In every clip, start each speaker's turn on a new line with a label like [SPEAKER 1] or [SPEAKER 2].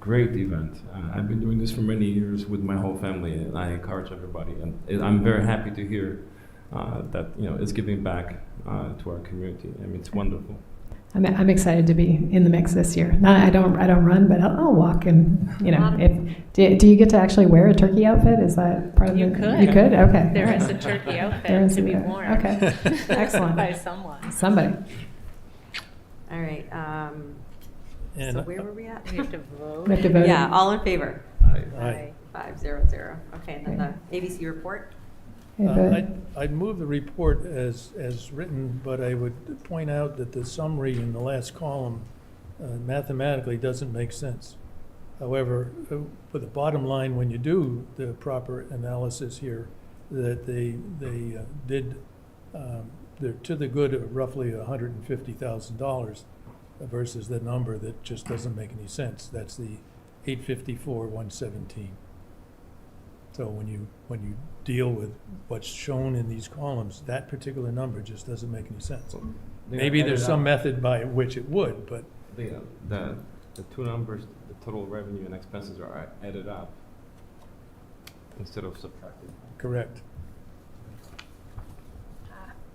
[SPEAKER 1] great event. Uh, I've been doing this for many years with my whole family, and I encourage everybody. And it, I'm very happy to hear uh, that you know it's giving back uh, to our community. I mean, it's wonderful.
[SPEAKER 2] I'm, I'm excited to be in the mix this year. Not, I don't I don't run, but I'll, I'll walk and you know. If do, do you get to actually wear a turkey outfit? Is that part of
[SPEAKER 3] You
[SPEAKER 2] the,
[SPEAKER 3] could.
[SPEAKER 2] You could. Okay.
[SPEAKER 3] There is a turkey
[SPEAKER 2] There
[SPEAKER 3] outfit
[SPEAKER 2] is
[SPEAKER 3] to
[SPEAKER 2] a-
[SPEAKER 3] be worn.
[SPEAKER 2] Okay. Excellent.
[SPEAKER 3] By someone.
[SPEAKER 2] Somebody.
[SPEAKER 4] All right, um, so
[SPEAKER 5] And
[SPEAKER 4] where were we at?
[SPEAKER 3] We have to vote.
[SPEAKER 2] We have to vote.
[SPEAKER 4] Yeah, all in favor?
[SPEAKER 1] I,
[SPEAKER 5] I,
[SPEAKER 4] Five zero zero. Okay, and then the ABC report?
[SPEAKER 2] Hey,
[SPEAKER 5] uh,
[SPEAKER 2] vote.
[SPEAKER 5] I'd- I'd move the report as, as written, but I would point out that the summary in the last column uh, mathematically doesn't make sense. However, uh, for the bottom line, when you do the proper analysis here, that they, they uh, did, um, they're to the good of roughly hundred and fifty thousand dollars versus the number that just doesn't make any sense. That's the eight fifty-four, one seventeen. So when you, when you deal with what's shown in these columns, that particular number just doesn't make any sense. Maybe there's some method by which it would, but
[SPEAKER 1] The, uh, the, the two numbers, the total revenue and expenses are added up instead of subtracted.
[SPEAKER 5] correct.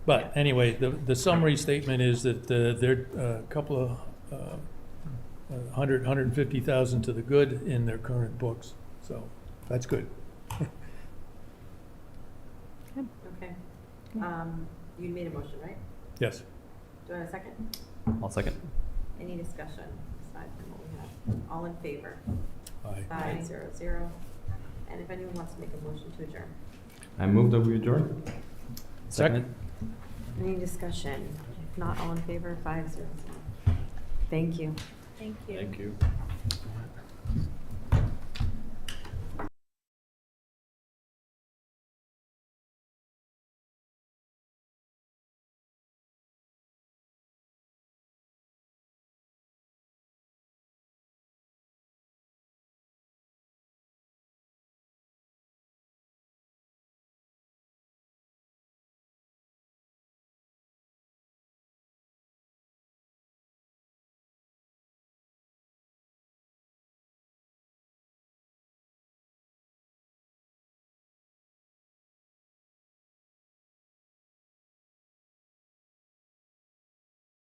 [SPEAKER 5] But anyway, the, the summary statement is that uh, there are a couple of, uh, a hundred, hundred and fifty thousand to the good in their current books, so that's good.
[SPEAKER 4] Okay. Um, you made a motion, right?
[SPEAKER 5] Yes.
[SPEAKER 4] Do I have a second?
[SPEAKER 6] I'll second.
[SPEAKER 4] Any discussion aside from what we have? All in favor?
[SPEAKER 5] Aye.
[SPEAKER 4] Five zero zero. And if anyone wants to make a motion to adjourn?
[SPEAKER 1] I moved over adjourn.
[SPEAKER 5] Second.
[SPEAKER 4] Any discussion? If not, all in favor, five zero zero. Thank you.
[SPEAKER 3] Thank you.
[SPEAKER 1] you.